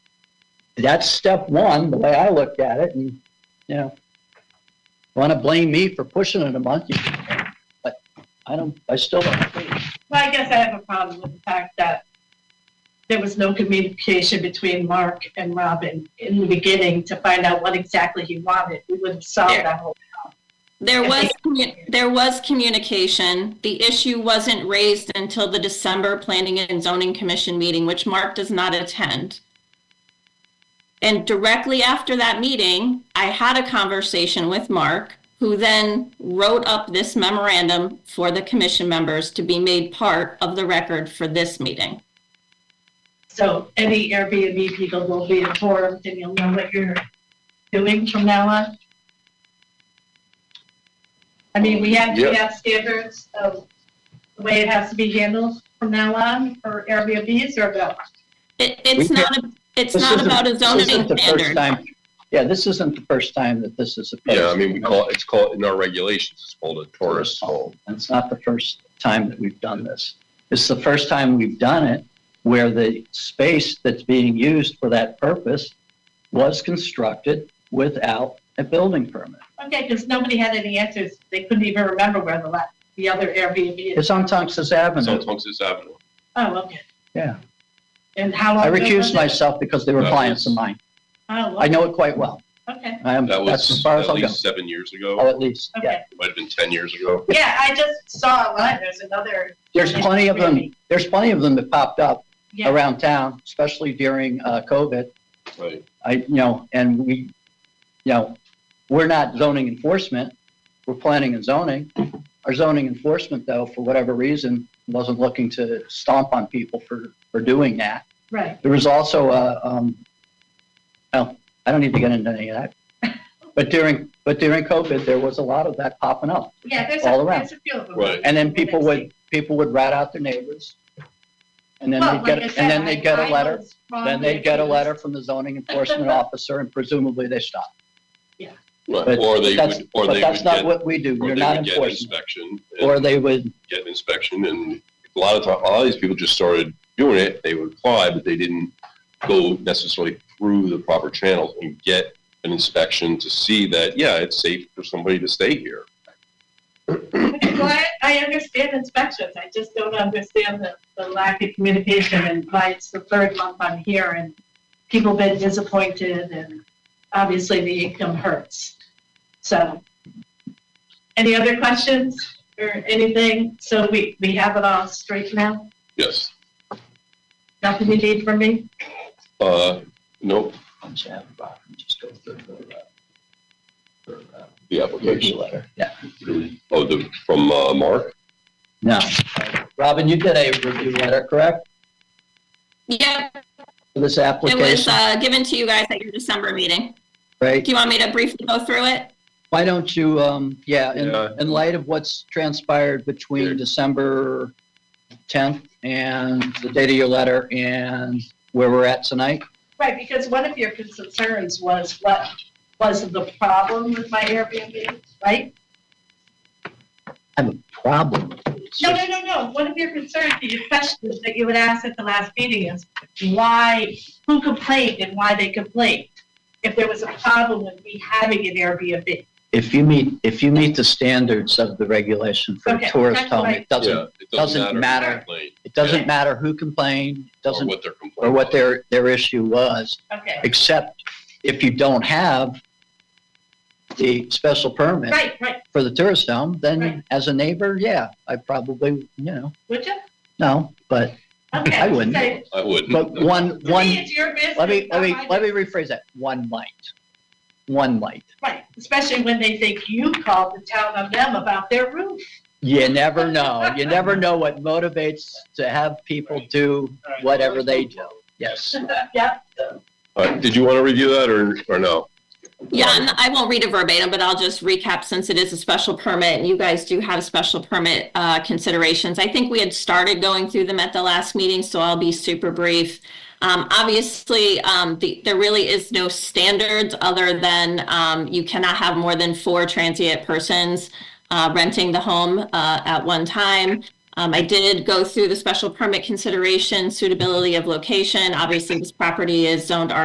that's step one, the way I looked at it, and, you know, want to blame me for pushing it a month, you can, but I don't, I still don't think. Well, I guess I have a problem with the fact that there was no communication between Mark and Robin in the beginning to find out what exactly he wanted. We would have solved Yeah. that whole. There I was, commu- there was communication. The issue wasn't raised until the December Planning and Zoning Commission meeting, which Mark does not attend. And directly after that meeting, I had a conversation with Mark, who then wrote up this memorandum for the commission members to be made part of the record for this meeting. So any Airbnb people will be informed, and you'll know what you're doing from now on. I mean, we have, we Yeah. have standards of the way it has to be handled from now on for Airbnbs or no? It, We it's can't- not, a- it's This not isn't- about a this isn't zoning the first standard. time- Yeah, this isn't the first time that this is opposed. Yeah, I mean, we call, it's called, in our regulations, it's called a tourist home. And It's not the first time that we've done this. It's the first time we've done it where the space that's being used for that purpose was constructed without a building permit. Okay, because nobody had any answers. They couldn't even remember where the la, the other Airbnb is. It's on Tunxus It's on Avenue. Tungus Avenue. Oh, okay. Yeah. And how long? I ago was recused it? myself because they were That clients of was- mine. Oh, I know it quite well. okay, I am, That that's as was far as at I'll go. least seven years Oh, ago. at least, yeah. okay. It Might have been 10 years ago. Yeah, I just saw one. There's another, There's plenty of them, there's plenty of them that popped up yeah. around town, especially during uh, COVID. Right. I, you know, and we, you know, we're not zoning enforcement, we're planning and zoning. Our zoning enforcement, though, for whatever reason, wasn't looking to stomp on people for, for doing that. Right. There was also a, um, oh, I don't need to get into any of that. But during, but during COVID, there was a lot of that popping up. Yeah, there's All a, around. there's a few of them. Right. And then people would, people would rat out their neighbors. And then they'd Well, like get, I and said, then they'd get I- a I letter, was wrong then with they'd get a this. letter from the zoning enforcement officer and presumably they stopped. Right. But Or they that's- would, or but they would that's not get, what we do. or You're they not would get an enforcement. inspection. Or and they would, Get an inspection and a lot of, ti- a lot of these people just started doing it. They would apply, but they didn't go necessarily through the proper channels and get an inspection to see that, yeah, it's safe for somebody to stay here. Well, I, I understand inspections. I just don't understand the, the lack of communication and why it's the third month I'm here and people been disappointed and obviously the income hurts. So, any other questions or anything? So we, we have it all straight now? Yes. Nothing you need from me? Uh, nope, I'm just having a problem. Just go through the, uh, the review application. letter. Yeah, Oh, the, from, uh, Mark? no. Robin, you did a review letter, correct, Yeah, for this it was application? uh, given to you guys at your December meeting. Right? Do you want me to briefly go through it? Why don't you, um, yeah, in, Yeah. in light of what's transpired Sure. between December tenth and the date of your letter and where we're at tonight? Right, because one of your concerns was what was the problem with my Airbnb, right? I have a problem with this. No, no, no, no. One of your concerns, your questions that you would ask at the last meeting is why, who complained and why they complained? If there was a problem with me having an Airbnb. If you meet, if you meet the standards of the regulation for a Okay, tourist that's home, what I- it doesn't, Yeah, it doesn't matter. who complained it doesn't Yeah. matter who complained, it Or doesn't, what their complaint. or what was. their, their issue was, Okay. except if you don't have the special permit Right, right. for the tourist home, Right. then as a neighbor, yeah, I probably, you know, Would you? no, but, Okay. I wouldn't. so I wouldn't. but one, To me, one, it's your business. let me, let not me, my let me business. rephrase that, one might. One might. Right, especially when they think you called the town on them about their roof. You never know. You never know what motivates to have people do whatever they do. Yes. Yep. All right, Uh, did you want to review that or, or no? Yeah, and I won't read it verbatim, but I'll just recap since it is a special permit and you guys do have special permit uh, considerations. I think we had started going through them at the last meeting, so I'll be super brief. Um, Obviously, um, the- there really is no standards other than um, you cannot have more than four transient persons uh, renting the home uh, at one time. Um, I did go through the special permit consideration, suitability of location. Obviously, this property is zoned R.